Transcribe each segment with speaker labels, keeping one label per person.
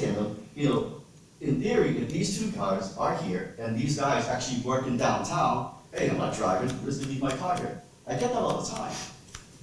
Speaker 1: Taylor, you know, in theory, if these two cars are here and these guys actually work in downtown, hey, I'm not driving, I'm just gonna leave my car here. I get that all the time.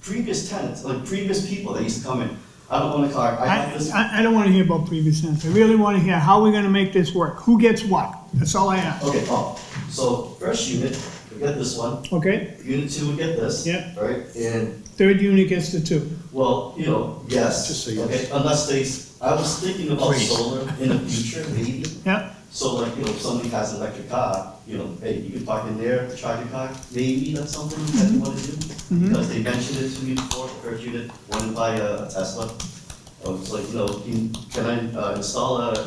Speaker 1: Previous tenants, like previous people that used to come in, I don't own a car, I
Speaker 2: I,
Speaker 1: have this.
Speaker 2: I- I don't wanna hear about previous tenants, I really wanna hear how we're gonna make this work, who gets what, that's all I ask,
Speaker 1: Okay, oh, so first unit, we get this one,
Speaker 2: okay?
Speaker 1: unit two, we get this.
Speaker 2: Yep.
Speaker 1: Right, and,
Speaker 2: Third unit gets the two,
Speaker 1: well, you know,
Speaker 3: Just
Speaker 1: yes,
Speaker 3: say yes.
Speaker 1: okay, unless they, s- I was thinking about
Speaker 3: Please.
Speaker 1: solar in the future, maybe.
Speaker 2: yeah,
Speaker 1: So like, you know, if somebody has an electric car, you know, hey, you can park in there, charge your car, maybe that's something that you wanna
Speaker 2: Mm-hmm.
Speaker 1: do. Because they mentioned it to me before, I heard you did, wanted to buy a a Tesla. I was like, you know, can, can I uh, install a,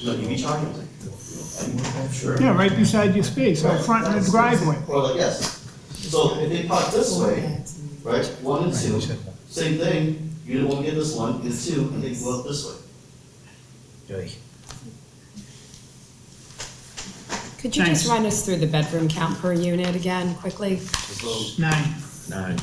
Speaker 1: you know, EV charger? I was like, you know, I'm Sure.
Speaker 2: yeah, right beside your space, out front in the driveway.
Speaker 1: Or like, yes, so if they park this way, right, one and two, same thing, you didn't wanna get this one, get two, and they go up this way.
Speaker 4: Could you
Speaker 2: Thanks.
Speaker 4: just run us through the bedroom count per unit again, quickly?
Speaker 1: So
Speaker 2: Nine,
Speaker 3: Nine.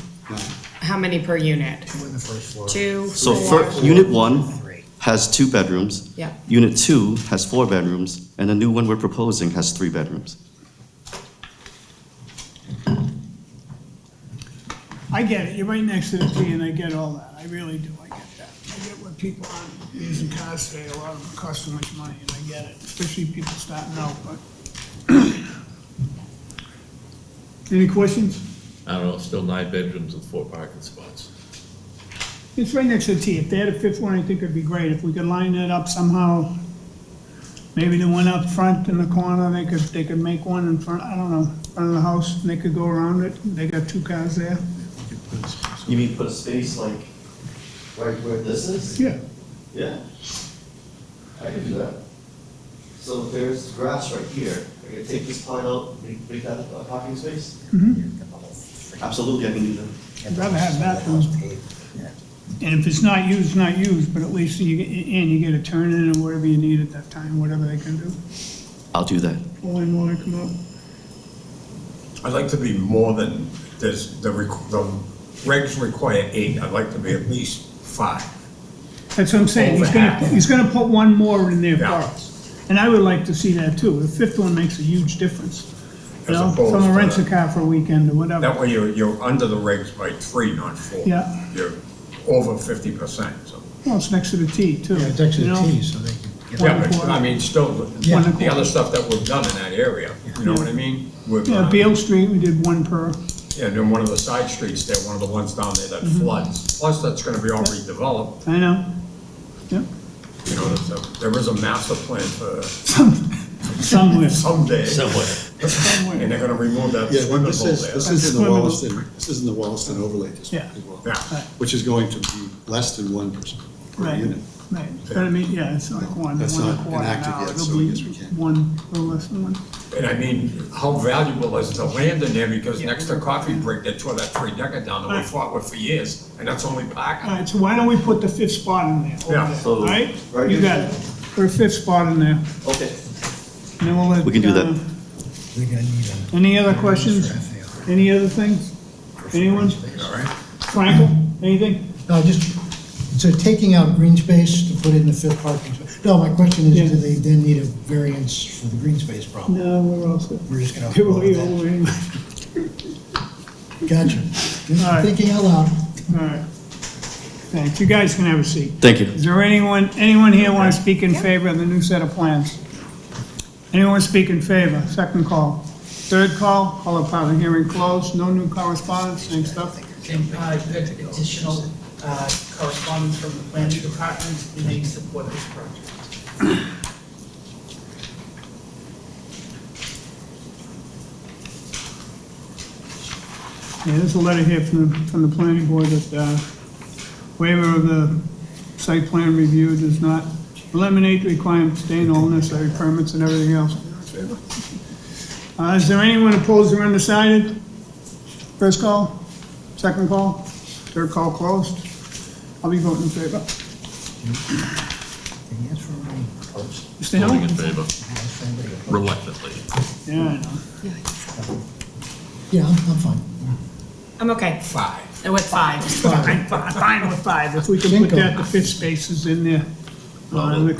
Speaker 4: How many per unit?
Speaker 3: Two in the first floor.
Speaker 4: Two,
Speaker 1: So
Speaker 4: four?
Speaker 1: first, unit one
Speaker 3: Three.
Speaker 1: has two bedrooms.
Speaker 4: Yeah.
Speaker 1: Unit two has four bedrooms, and the new one we're proposing has three bedrooms.
Speaker 2: I get it, you're right next to the T and I get all that, I really do, I get that. I get what people are using cars today, a lot of them cost too much money, and I get it, especially people starting out, but. Any questions?
Speaker 5: I don't know, still nine bedrooms with four parking spots.
Speaker 2: It's right next to the T. If they had a fifth one, I think it'd be great. If we could line that up somehow, maybe the one up front in the corner, they could, they could make one in front, I don't know, front of the house, and they could go around it. They got two cars there.
Speaker 1: You mean put a space like right where this is?
Speaker 2: Yeah.
Speaker 1: Yeah. I can do that. So if there's grass right here, I can take this part out, make, make that a parking space? Absolutely, I can do that.
Speaker 2: Hmm? I'd rather have that than- And if it's not used, not used, but at least you, get- and you get a turn in and whatever you need at that time, whatever they can do.
Speaker 1: I'll do that.
Speaker 2: Pull in while they come up.
Speaker 6: I'd like to be more than, there's, the, requ- the regs require eight, I'd like to be at least five.
Speaker 2: That's what I'm saying. He's
Speaker 6: Over
Speaker 2: gonna,
Speaker 6: half.
Speaker 2: he's gonna put one more in there for
Speaker 6: Yeah.
Speaker 2: us. And I would like to see that too. The fifth one makes a huge difference. You
Speaker 6: As
Speaker 2: know,
Speaker 6: opposed
Speaker 2: someone
Speaker 6: to-
Speaker 2: rents a car for a weekend or whatever.
Speaker 6: That way you're, you're under the regs by three, not four.
Speaker 2: Yeah.
Speaker 6: You're over fifty percent, so.
Speaker 2: Well, it's next to the T too.
Speaker 3: Yeah, it's actually
Speaker 2: you know?
Speaker 3: T, so they can get
Speaker 2: One
Speaker 6: Yeah,
Speaker 3: out.
Speaker 6: but,
Speaker 2: quarter.
Speaker 6: I mean, still,
Speaker 2: One
Speaker 6: the the
Speaker 2: quarter.
Speaker 6: other stuff that we've done in that area, you know what I mean? We've,
Speaker 2: Yeah,
Speaker 6: uh,
Speaker 2: Beale Street, we did one per,
Speaker 6: yeah, then one of the side streets there, one of the ones down there that
Speaker 2: Mm-hmm.
Speaker 6: floods, plus that's gonna be all redeveloped,
Speaker 2: I know. Yep,
Speaker 6: you know, so there is a master plan for
Speaker 2: somewhere,
Speaker 6: someday. And
Speaker 2: somewhere.
Speaker 6: they're gonna remove that
Speaker 3: Yeah,
Speaker 6: swimming
Speaker 3: but this
Speaker 6: pool
Speaker 3: is,
Speaker 6: there.
Speaker 3: this is in the
Speaker 2: Swimmable.
Speaker 3: Wallaston, this is in the Wallaston overlay district
Speaker 2: Yeah.
Speaker 3: as well.
Speaker 6: Yeah.
Speaker 3: Which is going to be less than one person per
Speaker 2: Right,
Speaker 3: unit.
Speaker 2: right. But I mean, yeah, it's like one, one
Speaker 3: That's
Speaker 2: a
Speaker 3: not
Speaker 2: quarter an
Speaker 3: enacted
Speaker 2: hour.
Speaker 3: yet,
Speaker 2: It'll
Speaker 3: so
Speaker 2: be
Speaker 3: yes, we can.
Speaker 2: one, or less than one.
Speaker 6: And I mean, how valuable is the land in there, because next to Coffee Break, they tore that three decker down that we
Speaker 2: Right.
Speaker 6: fought with for years, and that's only
Speaker 2: All
Speaker 6: parking.
Speaker 2: right, so why don't we put the fifth spot in there? over
Speaker 6: Yeah,
Speaker 2: there,
Speaker 1: so
Speaker 2: all Right?
Speaker 1: right
Speaker 2: You
Speaker 1: here.
Speaker 2: got it. Put a fifth spot in there.
Speaker 1: Okay.
Speaker 2: And then we'll let.
Speaker 1: We can do that.
Speaker 2: uh,
Speaker 3: They're gonna need a.
Speaker 2: Any other questions? Any other things? Anyone?
Speaker 6: All right,
Speaker 2: Frankel, anything?
Speaker 3: No, just, so taking out green space to put in the fifth parking space. No, my question
Speaker 2: Yeah.
Speaker 3: is, do they then need a variance for the green space problem?
Speaker 2: No, we're all set.
Speaker 3: We're just gonna.
Speaker 2: Give away, give away.
Speaker 3: Gotcha.
Speaker 2: All right.
Speaker 3: Just thinking out loud.
Speaker 2: All right. Thanks. You guys can have a seat.
Speaker 1: Thank you.
Speaker 2: Is there anyone, anyone here want to speak in favor of the new set of plans? Anyone speak in favor? Second call. Third call, call a public hearing closed. No new correspondence, same stuff.
Speaker 7: And uh, there's additional uh, correspondence from the planning department, and they support this project.
Speaker 2: Yeah, there's a letter here from the, from the planning board that uh, waiver of the site plan review does not eliminate the requirement to obtain all necessary permits and everything else. Uh, Is there anyone opposed or undecided? First call, second call, third call closed. I'll be voting in favor. Mr.
Speaker 5: Voting
Speaker 2: Hill?
Speaker 5: in favor, reluctantly.
Speaker 2: Yeah, I know.
Speaker 3: Yeah, I'm, I'm fine.
Speaker 4: I'm okay. Oh,
Speaker 6: five.
Speaker 4: With five.
Speaker 2: I'm fi- I'm fine with five, if we can put that, the fifth spaces in there. Uh, the